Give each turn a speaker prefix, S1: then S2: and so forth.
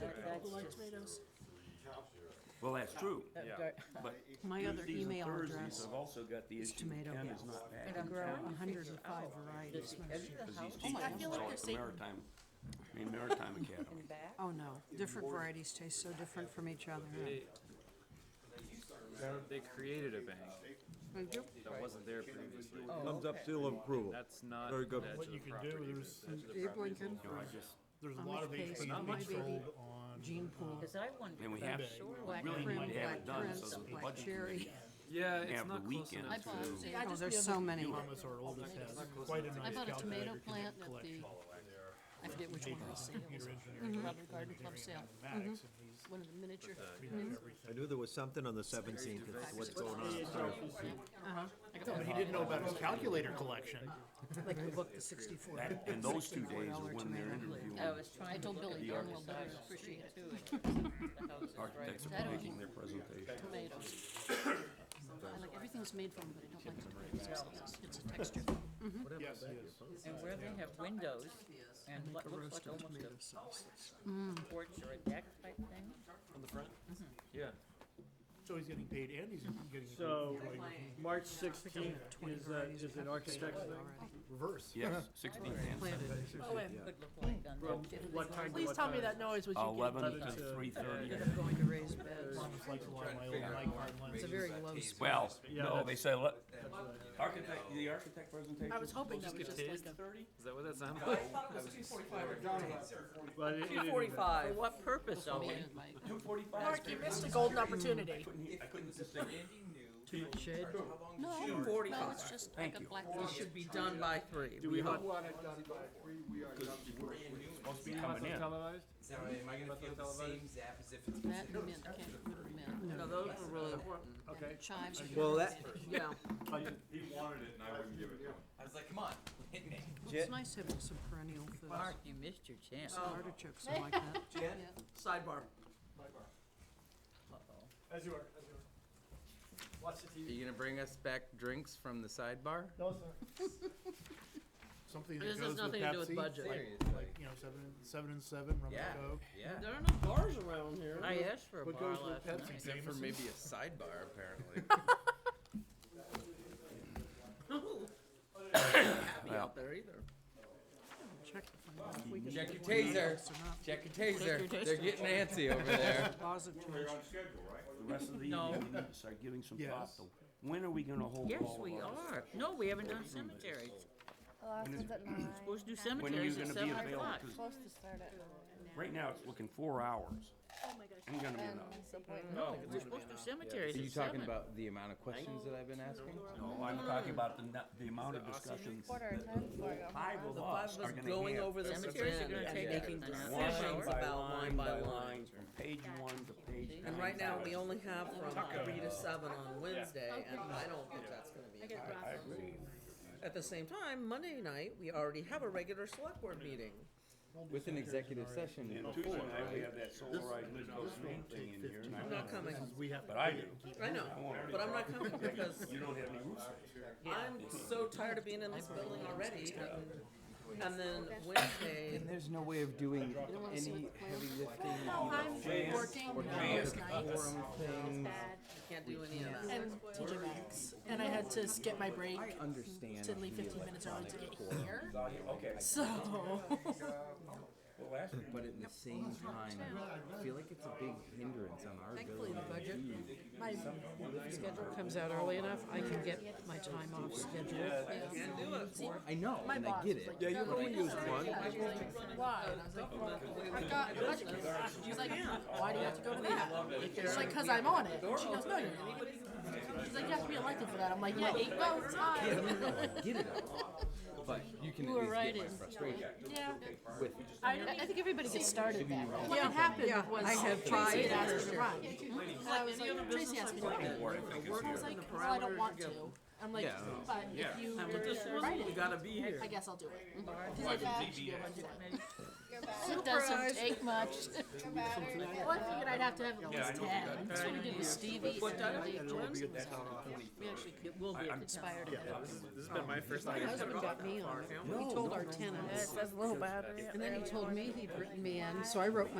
S1: it's
S2: like
S1: just-
S2: tomatoes?
S3: Well, that's true, yeah. But
S2: My other
S3: Tuesdays and
S2: email
S3: Thursdays,
S2: address
S3: I've also got the
S2: is
S3: issue,
S2: tomato.
S3: Ken is not back.
S2: And I'm growing a hundred and five varieties.
S3: Because he's
S1: Oh
S3: teaching
S1: my
S2: I feel
S3: at
S2: like
S3: the
S2: they're saying-
S3: Maritime, I mean, Maritime Academy.
S1: back.
S2: Oh, no, different varieties taste so different from each other.
S4: They, they created a bank
S2: They do.
S4: that wasn't there previously.
S5: Thumbs up, seal of approval.
S4: That's not
S5: Very
S4: the
S5: good.
S4: edge
S6: What
S4: of
S6: you
S4: the
S6: can do
S4: property.
S6: is-
S4: The edge of the
S2: Abe
S4: property is
S2: Lincoln.
S4: all
S3: I
S4: farm.
S3: just,
S6: There's a
S2: How
S6: lot
S2: much
S6: of things
S2: pays
S6: that
S2: my
S6: can be
S2: baby?
S6: sold on.
S2: Gene pool,
S1: Cause I wondered.
S3: and we
S1: about
S3: have,
S1: shore
S3: we
S1: black
S3: really
S2: currant,
S3: need to have it
S2: black
S3: done
S2: currants,
S3: so that the
S2: black
S3: budget
S2: cherry.
S3: committee
S4: Yeah,
S3: have the
S4: it's not close
S3: weekend
S7: I
S4: enough
S7: bought,
S3: to,
S7: see, I
S2: oh,
S7: just
S2: there's
S7: the
S2: so
S7: other,
S2: many.
S6: Thomas, our oldest, has quite
S7: I
S6: a nice
S7: bought a tomato
S6: calculator
S7: plant at the,
S6: collection.
S7: I forget which one it was, it was
S6: Computer engineering,
S7: a Rutland Garden Club sale,
S6: mathematics, and he's
S7: one of the miniature.
S5: I knew there was something on the seventeenth, it's what's going on.
S7: I got
S6: But he didn't know about his calculator collection.
S2: like the book, the sixty-four.
S3: that, and those two days
S2: $64
S3: are when they're
S2: tomato.
S3: interviewing
S1: I was trying
S7: I
S1: to
S7: told
S1: look at
S7: Billy
S1: the
S7: Darnwell,
S1: other
S7: but I
S1: side.
S7: appreciate it.
S1: The house is right.
S3: architects
S7: I
S3: are
S7: don't
S3: making
S7: know.
S3: their presentation.
S7: tomatoes. I like, everything's made from, 'em, but I don't like the tomatoes themselves, it's a texture.
S6: Yes, he is.
S1: And where they have windows and what looks like almost a
S2: Tomato sauce.
S1: porch or a deck type thing.
S4: on the front. Yeah.
S6: So he's getting paid and he's getting.
S8: So,
S6: enjoying
S8: March sixteenth
S2: Twenty
S8: is, a-
S2: varieties
S8: is
S2: of
S8: an
S2: apples
S8: architect's
S2: sold
S8: thing?
S2: already.
S6: Reverse.
S3: Yes, sixteen and
S2: Planted.
S1: oh, Could look like on
S8: From
S1: that.
S8: what time to
S9: Please
S8: what
S9: tell me
S8: time?
S9: that noise was you getting
S3: eleven
S8: But
S3: to
S8: it's a-
S3: three thirty.
S2: That I'm going to raise beds.
S6: Thomas likes a lot of my old Mike Hardlines.
S2: It's a very low. sp-
S3: Well,
S8: Yeah,
S3: no,
S8: that's-
S3: they say, look, architect, the architect presentation.
S9: I was hoping that was
S4: Get
S9: just like
S4: tased?
S9: a.
S4: Is that what that sounded like?
S8: But it- it- it-
S1: For what purpose, Owen?
S7: Man, my-
S3: Two forty-five.
S9: Mark, you missed a golden opportunity.
S3: I couldn't distinguish.
S2: Shade.
S7: No, no, it's just like a
S3: Thank you.
S7: black.
S1: should be done by three.
S8: Do we have,
S3: Supposed to be coming in.
S4: Televised?
S10: So am I gonna feel the same zap as if it's?
S7: That and mint, I can't remember mint.
S1: No, those are really important.
S8: okay.
S7: Chives are.
S5: Well, that-
S2: Yeah,
S10: He wanted it and I wouldn't give it to him. I was like, come on, hit me.
S2: it's nice having some perennial food,
S1: Mark, you missed your chance.
S2: some
S8: Oh.
S2: artichokes, I like that.
S10: Jen,
S7: Yeah.
S8: Sidebar.
S1: Uh-oh.
S8: As you are, as you are. Watch the
S10: Are
S8: TV.
S10: you gonna bring us back drinks from the sidebar?
S8: No, sir.
S6: Something
S1: This
S6: that
S1: has
S6: goes with
S1: nothing to do with
S6: Pepsi,
S1: budget.
S6: like,
S10: Seriously?
S6: you know, seven, seven and seven, rum
S10: Yeah,
S6: and coke.
S10: yeah.
S8: There are no bars around here.
S1: I asked for a
S8: What
S1: bar
S8: goes with
S1: last
S8: Pepsi?
S1: night.
S10: Except for maybe a sidebar apparently.
S3: Well,
S1: There either.
S2: Check if we can
S10: Check
S2: get
S10: your
S2: one of
S10: taser.
S2: those or not.
S10: Check your taser. They're getting antsy over there.
S2: Positive.
S3: the rest of the
S1: No.
S3: evening, we need to start giving some thought
S6: Yes.
S3: to, when are we gonna hold
S1: Yes,
S3: all
S1: we
S3: of our?
S1: are. No, we haven't done cemeteries.
S11: The last one's at nine.
S1: Supposed to do
S3: When are you
S1: cemeteries at
S3: gonna be
S1: seven
S3: available?
S1: o'clock.
S3: 'Cause
S11: Supposed to start at nine.
S3: Right now, it's looking four hours.
S11: Oh my gosh.
S3: I'm gonna be
S11: And
S3: up.
S11: this appointment.
S1: No, we're supposed to do cemeteries
S10: Are
S1: at
S10: you
S1: seven.
S10: talking about the amount of questions that I've been asking?
S3: No, I'm talking about the, nu- the amount of discussions
S11: Quarter of
S3: that
S11: ten before I go home.
S3: five of us are gonna have.
S1: the cemeteries are gonna take
S10: making
S1: an hour.
S3: Line
S1: Hour.
S3: by line by line, from page one to page nine.
S12: And right now, we only have from three to seven on Wednesday, and I don't think that's gonna be. enough. At the same time, Monday night, we already have a regular select board meeting.
S10: With an executive session
S3: And Tuesday night, we have that solarized Lisbon Street thing in here, and I
S12: I'm
S3: want,
S12: not coming,
S6: We have.
S3: but I do.
S12: I know, but I'm not coming because
S3: You don't have any roof space.
S12: I'm so tired of being in this building already. and- And then Wednesday,
S10: There's no way of doing any heavy lifting, either
S3: Jan,
S7: Working,
S10: forum things.
S12: can't do any of that.
S9: And TJ Maxx, and I had to skip my break
S10: Understand.
S9: to leave fifteen minutes early to get here,
S3: Okay,
S9: so.
S3: well, last year,
S10: But at the same time, I feel like it's a big hindrance on our ability to do.
S2: My schedule comes out early enough, I can get my time off schedule.
S12: Can't do it.
S10: I know, and I get it.
S5: Yeah, you only used one.
S9: Why? I've got a budget. She's like, why do you have to go to that? She's like, cause I'm on it. And she goes, no, you're not. She's like, you have to be elected for that. I'm like, yeah, eight votes,
S10: Yeah,
S9: aye.
S10: no, no, I get it. But you can
S7: were
S10: at least
S7: right,
S10: get my frustration
S9: Yeah.
S10: with
S9: I I think everybody gets started that. What
S12: Yeah.
S9: had happened
S12: Yeah,
S9: was
S12: I have
S9: Tracy had
S12: five
S9: asked her
S12: years.
S9: to run. And I was like, Tracy asked me to run. I was like, well, I don't want to. I'm like,
S10: Yeah.
S9: but if you
S12: We
S9: invited,
S12: gotta be here.
S9: I guess I'll do it. Cause I didn't actually go into that.
S11: Your battery-
S7: It doesn't take much.
S11: your battery-
S9: Well, I figured I'd have to have at least ten.
S7: That's what we did with Stevie's.
S1: What time?
S7: Dave Jones was
S3: that's
S7: on it. We actually
S1: It will be at the town.
S7: conspired.
S6: This has been my first
S2: My husband got me on it. He told our tenants,
S1: That's a little battery.
S2: and then he told me he'd written me in, so I wrote